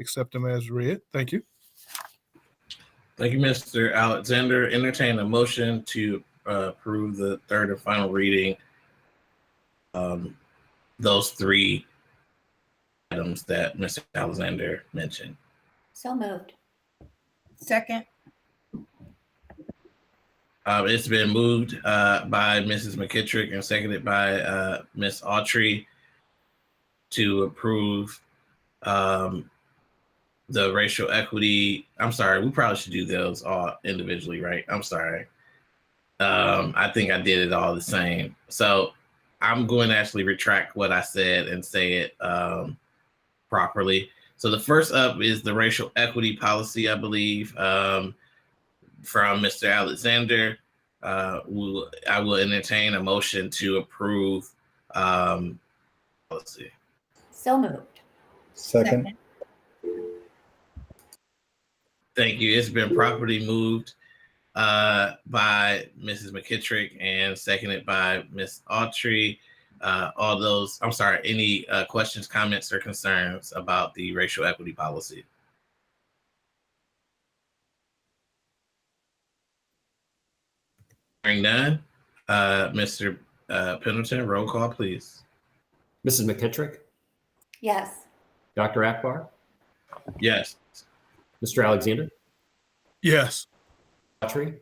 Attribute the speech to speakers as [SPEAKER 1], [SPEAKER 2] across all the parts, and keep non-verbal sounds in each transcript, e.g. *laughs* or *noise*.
[SPEAKER 1] accept them as read. Thank you.
[SPEAKER 2] Thank you, Mr. Alexander. Entertain a motion to uh, approve the third and final reading. Um, those three items that Mr. Alexander mentioned.
[SPEAKER 3] So moved.
[SPEAKER 4] Second,
[SPEAKER 2] Um, it's been moved uh, by Mrs. McKittrick and seconded by uh, Ms. Autry to approve um, the racial equity. I'm sorry, we probably should do those all individually, right? I'm sorry. Um, I think I did it all the same. So I'm going to actually retract what I said and say it um, properly. So the first up is the racial equity policy, I believe. Um, from Mr. Alexander. Uh, will, I will entertain a motion to approve. Um, let's see.
[SPEAKER 3] So moved.
[SPEAKER 5] Second,
[SPEAKER 4] second,
[SPEAKER 2] Thank you. It's been properly moved uh, by Mrs. McKittrick and seconded by Ms. Autry. Uh, all those, I'm sorry, any uh, questions, comments, or concerns about the racial equity policy? Hearing none, uh, Mr. Uh, Pendleton, roll call, please.
[SPEAKER 6] Mrs. McKittrick,
[SPEAKER 3] Yes.
[SPEAKER 6] Dr. Akbar,
[SPEAKER 2] Yes.
[SPEAKER 6] Mr. Alexander,
[SPEAKER 1] Yes.
[SPEAKER 6] Autry,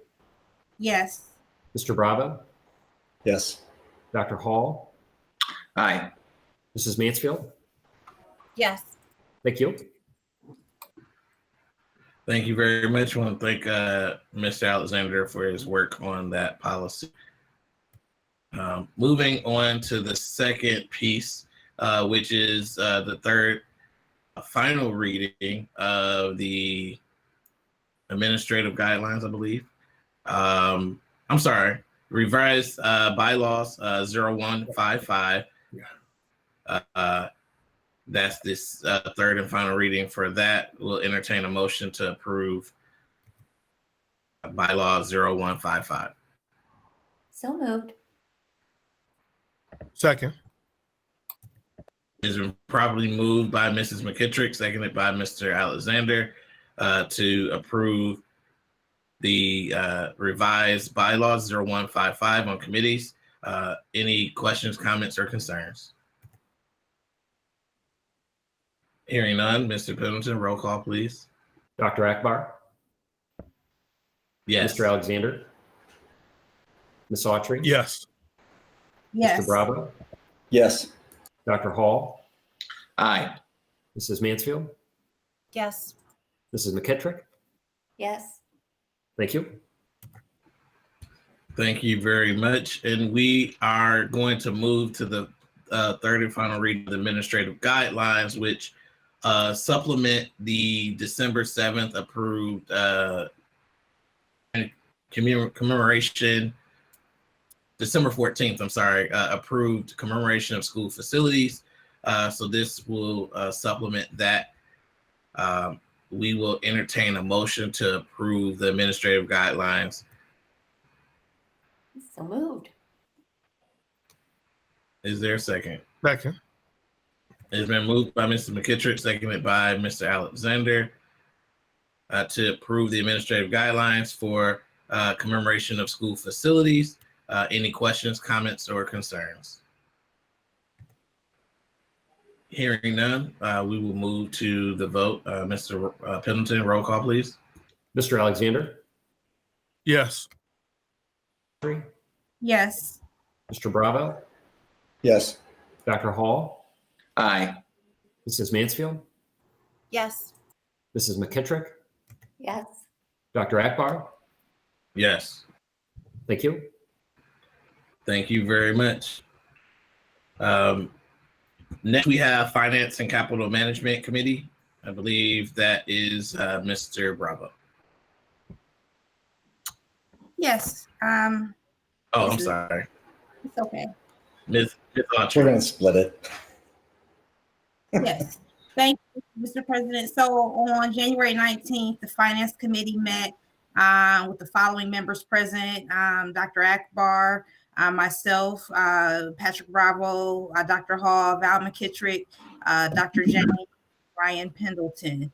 [SPEAKER 4] yes,
[SPEAKER 6] Mr. Bravo,
[SPEAKER 5] yes,
[SPEAKER 6] Dr. Hall,
[SPEAKER 7] aye,
[SPEAKER 6] Mrs. Mansfield.
[SPEAKER 4] yes,
[SPEAKER 6] Thank you.
[SPEAKER 2] Thank you very much. want to thank uh, Mr. Alexander for his work on that policy. Um, moving on to the second piece, uh, which is uh, the third uh, final reading of the administrative guidelines, I believe. Um, I'm sorry, revised uh, bylaws uh, 0155. Uh, uh, that's this uh, third and final reading for that. We'll entertain a motion to approve bylaw 0155.
[SPEAKER 3] So moved.
[SPEAKER 1] Second.
[SPEAKER 2] It's been properly moved by Mrs. McKittrick, seconded by Mr. Alexander uh, to approve the uh, revised bylaws 0155 on committees. Uh, any questions, comments, or concerns? Hearing none, Mr. Pendleton, roll call, please.
[SPEAKER 6] Dr. Akbar,
[SPEAKER 2] Yes.
[SPEAKER 6] Mr. Alexander, Ms. Autry,
[SPEAKER 1] Yes.
[SPEAKER 4] yes.
[SPEAKER 6] Mr. Bravo,
[SPEAKER 5] yes,
[SPEAKER 6] Dr. Hall,
[SPEAKER 7] aye,
[SPEAKER 6] Mrs. Mansfield,
[SPEAKER 4] Yes,
[SPEAKER 6] Mrs. McKittrick.
[SPEAKER 3] Yes.
[SPEAKER 6] Thank you.
[SPEAKER 2] Thank you very much. And we are going to move to the uh, third and final reading of the administrative guidelines, which uh, supplement the December 7th approved uh, and commem- commemoration, December 14th, I'm sorry, uh, approved commemoration of school facilities. Uh, so this will uh, supplement that. Um, we will entertain a motion to approve the administrative guidelines
[SPEAKER 3] So moved.
[SPEAKER 2] Is there a second?
[SPEAKER 1] Second.
[SPEAKER 2] It's been moved by Mr. McKittrick, seconded by Mr. Alexander uh, to approve the administrative guidelines for uh, commemoration of school facilities. Uh, any questions, comments, or concerns? Hearing none, uh, we will move to the vote. Uh, Mr. R- uh, Pendleton, roll call, please.
[SPEAKER 6] Mr. Alexander,
[SPEAKER 1] Yes.
[SPEAKER 6] Autry,
[SPEAKER 4] yes,
[SPEAKER 6] Mr. Bravo,
[SPEAKER 5] yes,
[SPEAKER 6] Dr. Hall,
[SPEAKER 7] aye,
[SPEAKER 6] Mrs. Mansfield,
[SPEAKER 4] yes,
[SPEAKER 6] Mrs. McKittrick,
[SPEAKER 3] Yes.
[SPEAKER 6] Dr. Akbar.
[SPEAKER 2] Yes.
[SPEAKER 6] Thank you.
[SPEAKER 2] Thank you very much. Um, next, we have Finance and Capital Management Committee. I believe that is uh, Mr. Bravo.
[SPEAKER 4] yes. Um,
[SPEAKER 2] Oh, I'm sorry,
[SPEAKER 4] it's okay.
[SPEAKER 2] Ms. Ms.
[SPEAKER 5] we're
[SPEAKER 2] Autry.
[SPEAKER 5] gonna split it.
[SPEAKER 4] *laughs* Yes. Thank you, Mr. President. So on January nineteenth, the Finance Committee met uh, with the following members present, um, Dr. Akbar, uh, myself, uh, Patrick Bravo, uh, Dr. Hall, Val McKittrick, uh, Dr. James, Ryan Pendleton.